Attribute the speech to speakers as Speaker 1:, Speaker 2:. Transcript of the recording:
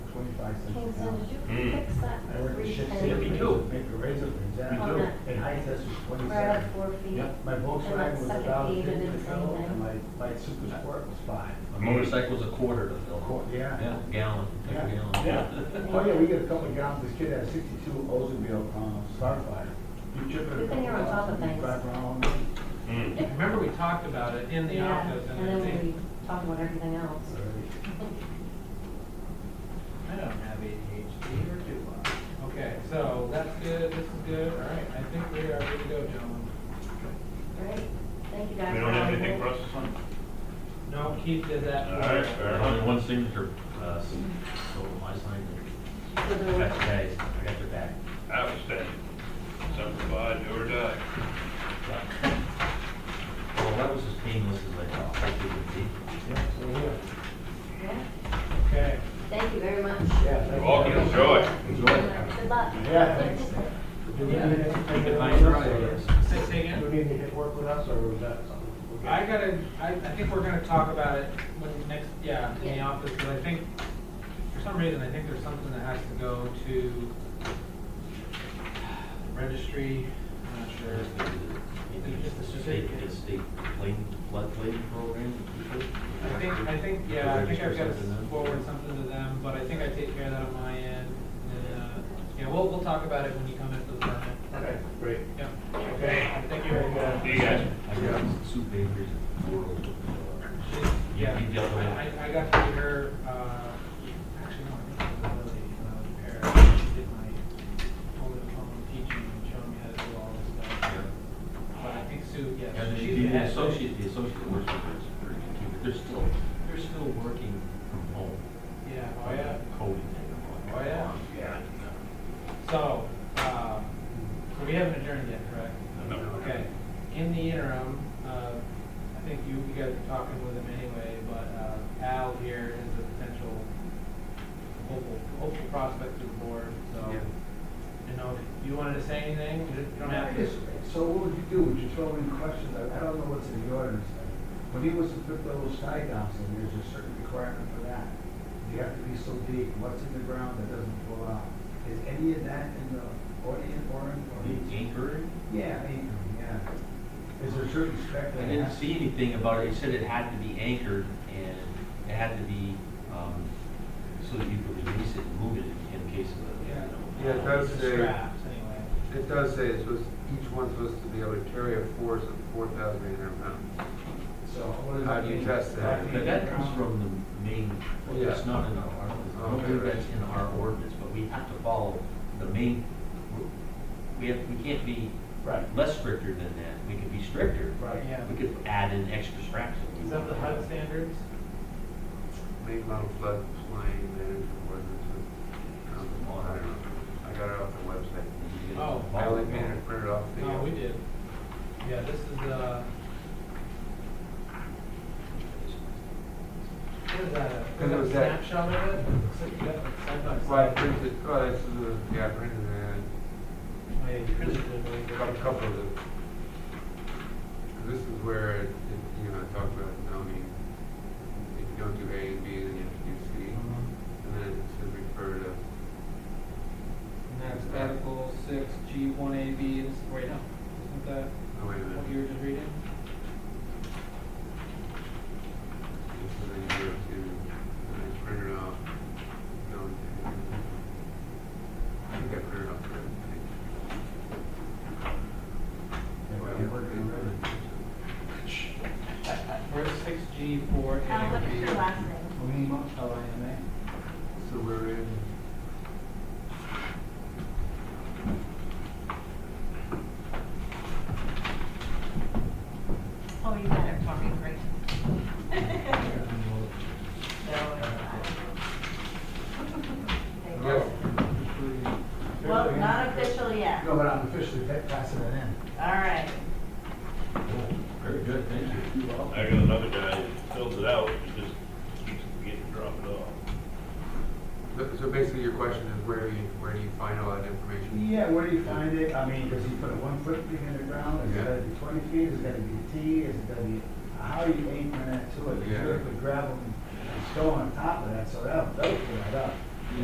Speaker 1: twenty-five
Speaker 2: King
Speaker 1: cents an
Speaker 2: Son,
Speaker 1: hour.
Speaker 2: did
Speaker 3: Mm.
Speaker 2: you fix that?
Speaker 1: I work at
Speaker 2: three
Speaker 1: Shakespeare.
Speaker 2: penny
Speaker 3: Yeah, we do.
Speaker 1: Make a razor for that.
Speaker 2: We do.
Speaker 1: And height test was
Speaker 2: Right
Speaker 1: twenty-seven.
Speaker 2: up four feet.
Speaker 3: Yep.
Speaker 1: My Volkswagen was
Speaker 2: second
Speaker 1: about
Speaker 2: page of
Speaker 1: fifty
Speaker 2: it
Speaker 1: years
Speaker 2: saying
Speaker 1: old,
Speaker 2: that.
Speaker 1: and my, my Super Sport was five.
Speaker 4: A motorcycle's a quarter to fill.
Speaker 1: Cool, yeah.
Speaker 4: Yeah, gallon, like a
Speaker 1: Yeah.
Speaker 4: gallon.
Speaker 1: Yeah. Oh, yeah, we get a couple of gallons, this kid had a sixty-two Oldsmobile, um, Starfire. You chip it a
Speaker 2: Good
Speaker 1: couple
Speaker 2: thing you're on top
Speaker 1: gallons,
Speaker 2: of
Speaker 1: you
Speaker 2: things.
Speaker 1: drive around.
Speaker 3: Mm.
Speaker 5: Remember, we talked about it in the
Speaker 2: Yeah,
Speaker 5: office
Speaker 2: and
Speaker 5: and I
Speaker 2: then
Speaker 5: think,
Speaker 2: we talk about everything else.
Speaker 5: I don't have ADHD or do I? Okay, so that's good, this is good, all right, I think we are good to go, gentlemen.
Speaker 2: Great, thank you guys.
Speaker 3: We don't have
Speaker 2: for having
Speaker 3: anything for
Speaker 2: me.
Speaker 3: us this month?
Speaker 5: No, Keith did that.
Speaker 3: All right, fair
Speaker 4: There's only
Speaker 3: enough.
Speaker 4: one signature, uh, s- so my sign,
Speaker 2: For
Speaker 4: I got your
Speaker 2: the-
Speaker 4: guys, I got your back.
Speaker 3: Outstanding. Simplified, do or die.
Speaker 4: Well, that was as painless as I thought it would be.
Speaker 2: yeah.
Speaker 5: Okay,
Speaker 2: Thank you very much.
Speaker 1: Yeah, thank you.
Speaker 3: Welcome, enjoy.
Speaker 2: Good luck.
Speaker 1: Yeah, thanks. Do we need
Speaker 5: Yeah.
Speaker 1: anything?
Speaker 4: If I
Speaker 1: else,
Speaker 4: try,
Speaker 1: or-
Speaker 4: yes.
Speaker 5: say, say
Speaker 1: Do
Speaker 5: again?
Speaker 1: we need to hit work with us, or was that something? we're good?
Speaker 5: I gotta, I, I think we're gonna talk about it when next, yeah, in the
Speaker 2: Yeah.
Speaker 5: office, because I think, for some reason, I think there's something that has to go to registry, I'm not sure. It's just a
Speaker 4: State,
Speaker 5: certificate.
Speaker 4: it's state plane, floodplain program.
Speaker 5: I think, I think, yeah, I think I've got to forward something to them, but I think I take care of that on my end. And, uh, yeah, we'll, we'll talk about it when you come in for the permit.
Speaker 1: Okay, great.
Speaker 5: Yeah,
Speaker 1: Okay.
Speaker 5: thank you.
Speaker 3: Do you guys?
Speaker 4: I got soup bakeries in the world.
Speaker 5: She's- Yeah,
Speaker 4: You dealt with it.
Speaker 5: I, I- I got to meet her, uh, actually, no, I think it was Lily, uh, Paris. She did my over the phone teaching and showing me how to do all this stuff. But I think Sue, yeah.
Speaker 4: And
Speaker 5: she's
Speaker 4: the- the
Speaker 5: head.
Speaker 4: associate, the associate works with us, pretty good, but they're still, they're still working from home.
Speaker 5: Yeah, oh, yeah.
Speaker 4: Coding.
Speaker 5: Oh, yeah. So, um, so we haven't adjourned yet, correct?
Speaker 3: No.
Speaker 5: Okay. In the interim, uh, I think you, you guys are talking with him anyway, but, uh, Al here is a potential hopeful, hopeful prospect to the board, so.
Speaker 4: Yeah.
Speaker 5: You know, if you wanted to say anything, you don't have to.
Speaker 1: So what would you do? Would you throw in questions? I I don't know what's in the ordinance. When he was to put those sky downs in, there's a certain requirement for that. You have to be so deep, what's in the ground that doesn't fall out? Is any of that in the ordinance or in?
Speaker 6: Oh,
Speaker 1: or-
Speaker 4: The anchor,
Speaker 1: Yeah, I mean, yeah. Is there certain spec
Speaker 4: I
Speaker 1: that
Speaker 4: didn't
Speaker 1: has-
Speaker 4: see anything about it, it said it had to be anchored and it had to be, um, so that you could release it and move it in- in case of, a, you
Speaker 5: Yeah.
Speaker 4: know.
Speaker 6: Yeah, it does say,
Speaker 5: Scraps, anyway.
Speaker 6: it does say it's supposed, each one's supposed to be able to carry a force of four thousand eight hundred pounds.
Speaker 1: So what does
Speaker 6: How
Speaker 1: that
Speaker 6: do you
Speaker 1: mean?
Speaker 6: test that?
Speaker 1: Like
Speaker 4: But that comes
Speaker 1: ground?
Speaker 4: from the main,
Speaker 6: Yeah. Oh,
Speaker 4: it's not in our, I don't think that's in our ordinance, but we have to follow the main, we have, we can't be
Speaker 1: Right,
Speaker 4: less stricter than that, we could be stricter.
Speaker 1: right.
Speaker 5: Yeah.
Speaker 4: We could add in extra straps. if we
Speaker 5: Is that the
Speaker 4: want.
Speaker 5: HUD standards?
Speaker 6: Main model flood plain management ordinance. with, um, I don't know. I got it off the website.
Speaker 4: You get
Speaker 5: Oh.
Speaker 6: I
Speaker 4: all
Speaker 6: only
Speaker 4: of
Speaker 6: made
Speaker 4: them.
Speaker 6: it printed off the.
Speaker 5: No, we did. Yeah, this is, uh, what is that?
Speaker 6: It
Speaker 5: Is that a
Speaker 6: was that-
Speaker 5: snapshot of it? Looks like you got it side by
Speaker 6: uh, Well, I
Speaker 5: side.
Speaker 6: printed, oh, this is, the- yeah, I printed it,
Speaker 5: Oh, yeah, you printed it, I believe.
Speaker 6: I got a couple of them. This is where, it- it, you know, I talked about zoning. If you don't do A and B, then you have to do C.
Speaker 5: Mm-hmm.
Speaker 6: And then it says refer to, oh,
Speaker 5: And that's Article six, G one A B, is, wait, no, isn't that
Speaker 6: oh, wait a minute.
Speaker 5: what you were just reading?
Speaker 6: This is a year two, and I printed off. the only thing. I think I printed off the other page.
Speaker 1: Yeah, well, you're working on it.
Speaker 5: Where's six G four A
Speaker 2: Al, Uh, what is
Speaker 5: B?
Speaker 2: your last name?
Speaker 5: L I M A.
Speaker 6: So we're in.
Speaker 2: Oh, you got it for me, great. No, it's not. Thank you. Well, not official yet.
Speaker 1: No, but I'm officially pa- passing it in.
Speaker 2: All right.
Speaker 4: Very good, thank you.
Speaker 3: I got another guy that fills it out, he just keeps getting dropped off.
Speaker 6: So- So basically, your question is where do you, where do you find all that information?
Speaker 1: Yeah, where do you find it? I mean, does he put a one foot thing in the ground? Is it gotta be twenty feet? Is it gotta be a T? Is it gonna be, how are you aiming that to it? Because
Speaker 6: Yeah.
Speaker 1: you put gravel and stone on top of that, so that'll, that'll fill it up.